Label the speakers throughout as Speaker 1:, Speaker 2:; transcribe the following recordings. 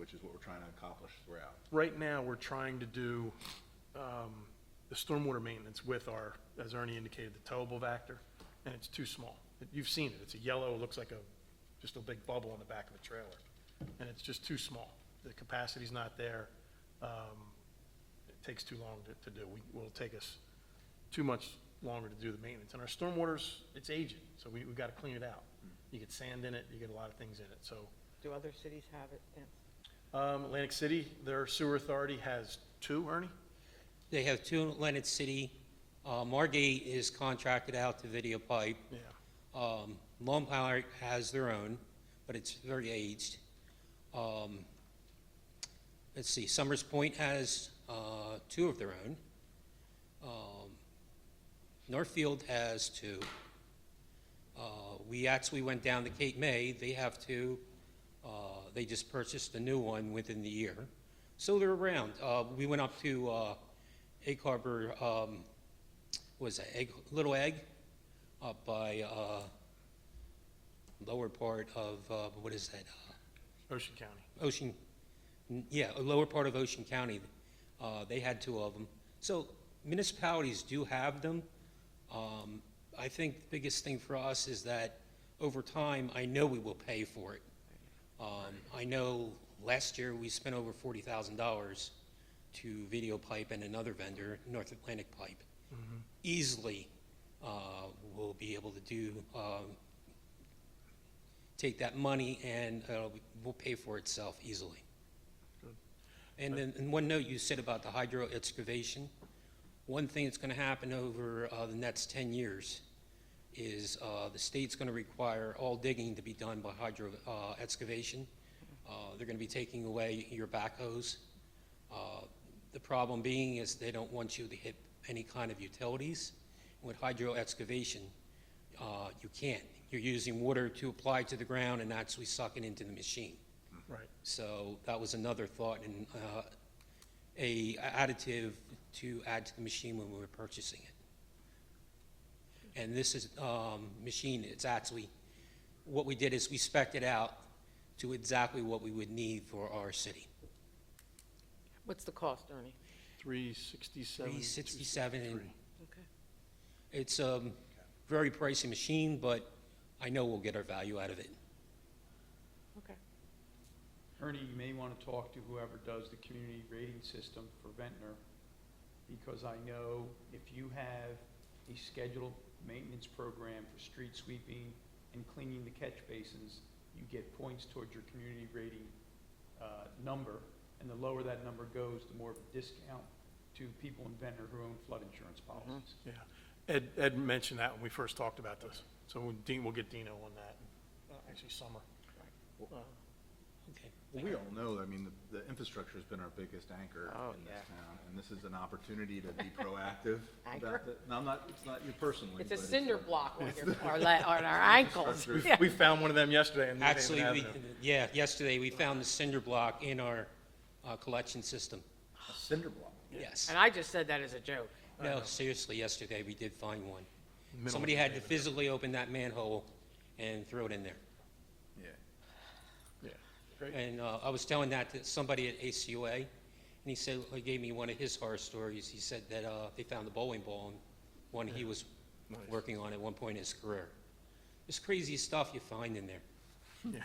Speaker 1: which is what we're trying to accomplish throughout.
Speaker 2: Right now, we're trying to do um, the stormwater maintenance with our, as Ernie indicated, the towable vector, and it's too small. You've seen it, it's a yellow, it looks like a, just a big bubble on the back of a trailer, and it's just too small. The capacity's not there. Um, It takes too long to- to do. We- It will take us too much longer to do the maintenance. And our stormwater's, it's aging, so we we got to clean it out. You get sand in it, you get a lot of things in it, so.
Speaker 3: Do other cities have it? Yeah.
Speaker 2: Um, Atlantic City, their sewer authority has two, Ernie?
Speaker 4: They have two in Atlantic City. Uh, Margate is contracted out to Video Pipe.
Speaker 2: Yeah.
Speaker 4: Um, Lone Pine has their own, but it's very aged. Um, let's see, Summers Point has, uh, two of their own. Um, Northfield has two. Uh, we actually went down to Cape May, they have two. Uh, they just purchased a new one within the year. So they're around. Uh, we went up to, uh, Egg Harbor, um, what is that, Egg, Little Egg? up by uh, lower part of, uh, what is that? Uh,
Speaker 2: Ocean County.
Speaker 4: Ocean, n- yeah, lower part of Ocean County. Uh, They had two of them. So municipalities do have them. Um, I think the biggest thing for us is that over time, I know we will pay for it. Um, I know last year, we spent over $40,000 to Video Pipe and another vendor, North Atlantic Pipe easily uh, will be able to do, um, take that money and uh, will pay for itself easily.
Speaker 2: Good.
Speaker 4: And then, and one note you said about the hydro excavation, one thing that's going to happen over uh, the next 10 years is uh, the state's going to require all digging to be done by hydro uh, excavation. Uh, They're going to be taking away your backhoes. Uh, The problem being is they don't want you to hit any kind of utilities. With hydro excavation, uh, you can't. You're using water to apply to the ground and actually suck it into the machine.
Speaker 2: Right.
Speaker 4: So that was another thought and uh, a additive to add to the machine when we were purchasing it. And this is, um, machine, it's actually, what we did is we spec'd it out to exactly what we would need for our city.
Speaker 3: What's the cost, Ernie?
Speaker 2: Three sixty-seven.
Speaker 4: 367 and
Speaker 3: Okay.
Speaker 4: it's a very pricey machine, but I know we'll get our value out of it.
Speaker 3: Okay.
Speaker 5: Ernie, you may want to talk to whoever does the community rating system for Ventnor, because I know if you have a scheduled maintenance program for street sweeping and cleaning the catch basins, you get points towards your community rating uh, number, and the lower that number goes, the more of a discount to people in Ventnor who own flood insurance policies.
Speaker 2: Yeah. Ed, Ed mentioned that when we first talked about this. So when Dean, we'll get Dino on that, Uh, actually Summer. Uh,
Speaker 4: Okay.
Speaker 1: Well, we all know, I mean, the, the infrastructure's been our biggest anchor
Speaker 3: Oh,
Speaker 1: in this town, and this is an opportunity to be proactive about
Speaker 3: Anchor?
Speaker 1: it. No, I'm not, it's not you personally, but
Speaker 3: It's a
Speaker 1: it's.
Speaker 3: cinder
Speaker 1: our-
Speaker 3: block on your, or la- on our ankles.
Speaker 1: Infrastructure.
Speaker 3: Yeah.
Speaker 2: We found one of them yesterday in New Haven
Speaker 4: Actually, we,
Speaker 2: Avenue.
Speaker 4: yeah, yesterday, we found the cinder block in our uh, collection system.
Speaker 1: A cinder block.
Speaker 4: Yes.
Speaker 3: And I just said that as a joke.
Speaker 4: No, seriously, yesterday, we did find one.
Speaker 2: Middle of
Speaker 4: Somebody
Speaker 2: New
Speaker 4: had to
Speaker 2: Haven.
Speaker 4: physically open that manhole and throw it in there.
Speaker 1: Yeah.
Speaker 2: Yeah. Great.
Speaker 4: And uh, I was telling that to somebody at ACUA, and he said, he gave me one of his horror stories. He said that uh, they found the bowling ball, and one he was
Speaker 2: Nice.
Speaker 4: working on at one point in his career. It's crazy stuff you find in there,
Speaker 2: Yeah.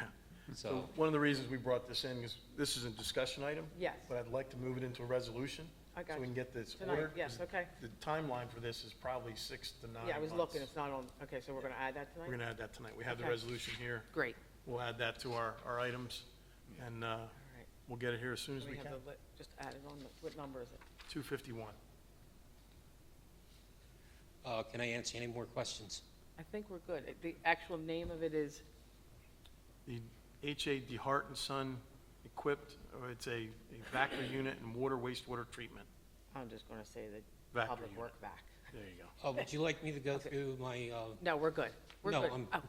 Speaker 2: So
Speaker 4: so.
Speaker 2: one of the reasons we brought this in is this is a discussion item.
Speaker 3: Yes.
Speaker 2: But I'd like to move it into a resolution.
Speaker 3: I got
Speaker 2: So we
Speaker 3: you.
Speaker 2: can get this
Speaker 3: Tonight,
Speaker 2: order.
Speaker 3: yes, okay.
Speaker 2: The timeline for this is probably six to nine months.
Speaker 3: Yeah, I was looking, it's not on, okay, so we're gonna add that
Speaker 2: We're
Speaker 3: tonight?
Speaker 2: going to add that tonight. We have the
Speaker 3: Okay.
Speaker 2: resolution here.
Speaker 3: Great.
Speaker 2: We'll add that to our, our items, and uh,
Speaker 3: All right.
Speaker 2: we'll get it here as soon as
Speaker 3: Let
Speaker 2: we
Speaker 3: me
Speaker 2: can.
Speaker 3: have the, li- just add it on, the- what number is it?
Speaker 2: 251.
Speaker 4: Uh, Can I answer any more questions?
Speaker 3: I think we're good. It- The actual name of it is,
Speaker 2: The H.A. DeHart and Son equipped, or it's a a vacuum unit and water wastewater treatment.
Speaker 3: I'm just gonna say the
Speaker 2: Vector
Speaker 3: public
Speaker 2: unit.
Speaker 3: work back.
Speaker 2: There you go.
Speaker 4: Uh, Would you like me to go through my, uh,
Speaker 3: No, we're good. We're
Speaker 4: No,
Speaker 3: good.
Speaker 4: I'm-
Speaker 3: Oh,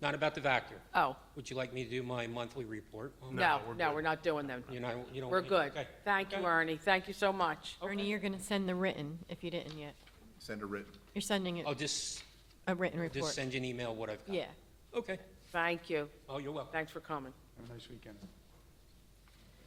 Speaker 4: not about the Vactor?
Speaker 3: Oh,
Speaker 4: Would you like me to do my monthly report? on that?
Speaker 3: no,
Speaker 2: we're
Speaker 3: no,
Speaker 2: good.
Speaker 3: we're not doing them.
Speaker 4: You know, you don't.
Speaker 3: We're good.
Speaker 4: Okay.
Speaker 3: Thank you,
Speaker 4: Okay.
Speaker 3: Ernie. Thank you so much.
Speaker 6: Ernie, you're gonna send the written, if you didn't yet.
Speaker 1: Send a written.
Speaker 6: You're sending it-
Speaker 4: I'll just,
Speaker 6: a written
Speaker 4: Oh, just
Speaker 6: report.
Speaker 4: send you an email what I've got.
Speaker 6: Yeah.
Speaker 4: Okay.
Speaker 3: Thank you.
Speaker 4: Oh, you're welcome.
Speaker 3: Thanks for coming.
Speaker 5: Have a nice weekend.